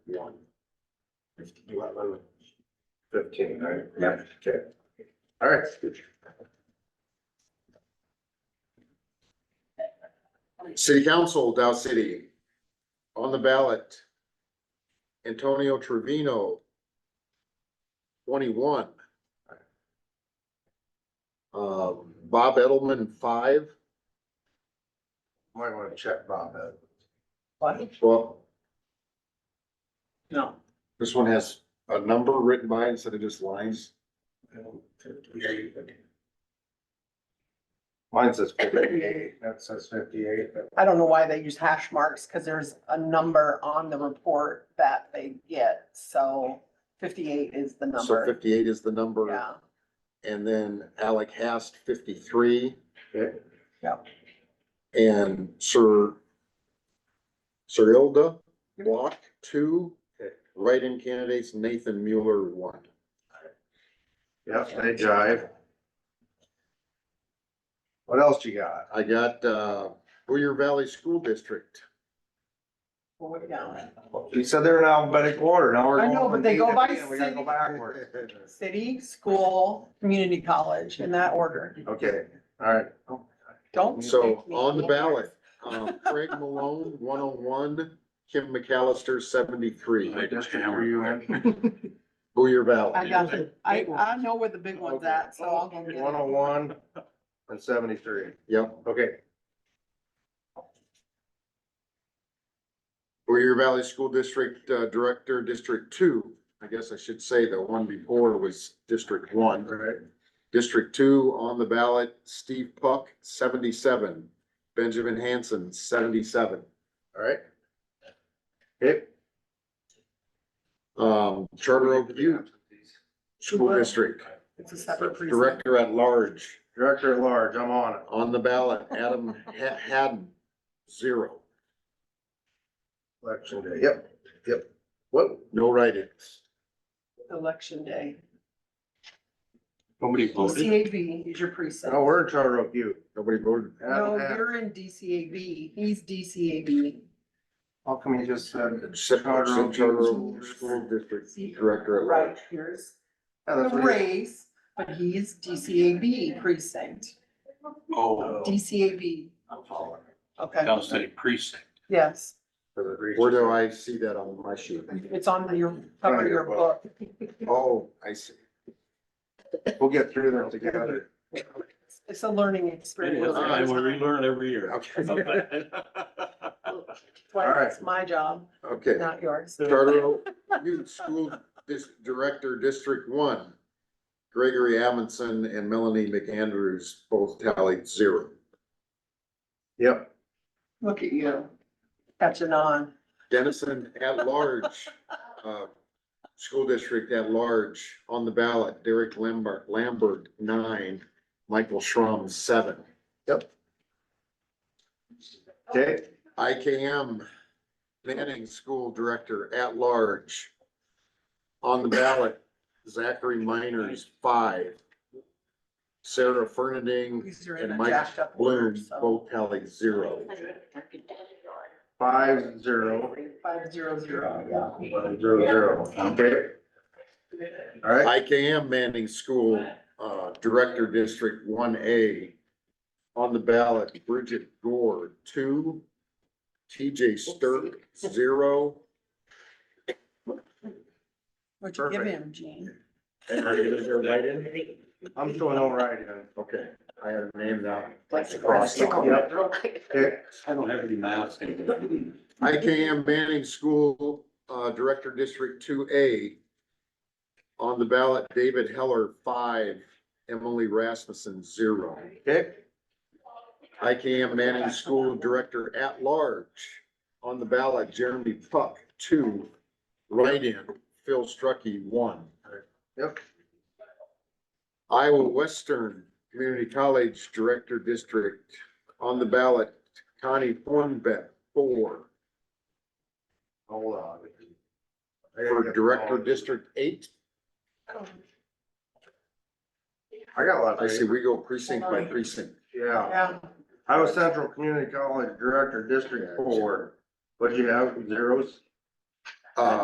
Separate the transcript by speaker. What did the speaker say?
Speaker 1: Fifteen, right? Yeah. Okay. All right. City Council, Dow City. On the ballot. Antonio Trevino. Twenty-one. Uh, Bob Edelman, five. Might wanna check Bob out.
Speaker 2: What?
Speaker 1: Well,
Speaker 2: No.
Speaker 1: this one has a number written by it instead of just lines. Mine says fifty-eight, that says fifty-eight.
Speaker 2: I don't know why they use hash marks, because there's a number on the report that they get, so fifty-eight is the
Speaker 1: So
Speaker 2: number.
Speaker 1: fifty-eight is the number,
Speaker 2: Yeah,
Speaker 1: and then Alec Hast, fifty-three.
Speaker 2: Yep.
Speaker 1: And Sir Sir Ilda Block, two. Write-in candidates Nathan Mueller, one.
Speaker 3: Yep, they jive. What else you got?
Speaker 1: I got, uh, Booyer Valley School District.
Speaker 2: well, we're down.
Speaker 3: You said they're in alphabetical order, now we're
Speaker 2: I
Speaker 3: going.
Speaker 2: know, but
Speaker 3: from
Speaker 2: they
Speaker 3: D
Speaker 2: go
Speaker 3: to
Speaker 2: by
Speaker 3: B, and We gotta go
Speaker 2: city.
Speaker 3: backwards.
Speaker 2: City, school, community college, in that order.
Speaker 3: Okay, all right.
Speaker 2: Don't.
Speaker 1: So
Speaker 2: make me-
Speaker 1: on the ballot, um, Craig Malone, one oh one, Kim McAllister, seventy-three.
Speaker 3: What district were you in?
Speaker 1: Booyer
Speaker 2: I
Speaker 1: Valley.
Speaker 2: got it. I, I know where the big one's at, so I'll go get
Speaker 3: One oh
Speaker 2: it.
Speaker 3: one and seventy-three,
Speaker 1: Yep,
Speaker 3: okay.
Speaker 1: Booyer Valley School District uh, Director, District Two. I guess I should say the one before was District One.
Speaker 3: Right.
Speaker 1: District Two on the ballot, Steve Puck, seventy-seven. Benjamin Hanson, seventy-seven.
Speaker 3: All right. Okay.
Speaker 1: Um, Charter Oak Youth School District,
Speaker 2: It's a separate precinct.
Speaker 1: Director at Large,
Speaker 3: Director at large, I'm on it.
Speaker 1: on the ballot, Adam Ha- Haddon, zero.
Speaker 3: Election day, yep, yep. What?
Speaker 1: No write-ins.
Speaker 2: Election day.
Speaker 3: Nobody
Speaker 2: DCAB is your precinct.
Speaker 3: No, we're in Charter Oak U.
Speaker 1: Nobody voted.
Speaker 2: No, you're in DCAB. He's DCAB.
Speaker 3: How come you just said?
Speaker 1: Except for
Speaker 3: Charter Oak
Speaker 1: Charter Oak
Speaker 3: Youth.
Speaker 1: School District Director at
Speaker 2: Right,
Speaker 1: large.
Speaker 2: here's
Speaker 3: Yeah,
Speaker 2: the
Speaker 3: that's what it is.
Speaker 2: race, but he's DCAB precinct.
Speaker 4: Oh,
Speaker 2: DCAB,
Speaker 3: I'm following.
Speaker 2: okay,
Speaker 4: Dow City precinct.
Speaker 2: yes.
Speaker 1: Where do I see that on my sheet?
Speaker 2: It's on your, cover of your book.
Speaker 1: Oh, I see.
Speaker 3: We'll get through them together.
Speaker 2: It's a learning
Speaker 4: It
Speaker 2: experience.
Speaker 4: is, and we relearn every year.
Speaker 1: Okay.
Speaker 2: Well, It's my job,
Speaker 1: Okay,
Speaker 2: not yours.
Speaker 1: Charter Oak Youth School Dis- Director, District One. Gregory Amundson and Melanie McAndrews both tallied zero.
Speaker 3: Yep,
Speaker 2: Look at you, catching on.
Speaker 1: Dennison at large, uh, school district at large on the ballot, Derek Lambert, Lambert, nine, Michael Schrum, seven.
Speaker 3: okay,
Speaker 1: IKM Manning School Director at Large. On the ballot, Zachary Miners, five. Sarah Fernending
Speaker 2: These are in
Speaker 1: and
Speaker 2: a
Speaker 1: Mike
Speaker 2: jacked up order,
Speaker 1: Bloom,
Speaker 2: so.
Speaker 1: both tallied zero.
Speaker 3: five, zero,
Speaker 2: Five zero zero, yeah.
Speaker 3: zero, zero, okay. All right,
Speaker 1: IKM Manning School uh, Director District one A. On the ballot, Bridget Gore, two. TJ Stirk, zero.
Speaker 2: What'd you give
Speaker 3: Perfect.
Speaker 2: him, Gene?
Speaker 1: And are you there right in?
Speaker 3: I'm doing all right then.
Speaker 1: Okay, I had a name now.
Speaker 3: Yep, okay,
Speaker 4: I don't have any math. anymore.
Speaker 1: IKM Manning School, uh, Director District two A. On the ballot, David Heller, five, Emily Rasmussen, zero.
Speaker 3: okay,
Speaker 1: IKM Manning School Director at Large. On the ballot, Jeremy Puck, two, write-in, Phil Struckey, one.
Speaker 3: yep,
Speaker 1: Iowa Western Community College Director District. On the ballot, Connie Thornbeck, four.
Speaker 3: hold on. I gotta
Speaker 1: For
Speaker 3: get-
Speaker 1: Director District eight,
Speaker 3: I got a lot
Speaker 1: I
Speaker 3: of,
Speaker 1: see we go precinct by precinct.
Speaker 3: yeah.
Speaker 2: Yeah,
Speaker 3: Iowa Central Community College Director, District Four. What'd you have, zeros?
Speaker 1: Uh,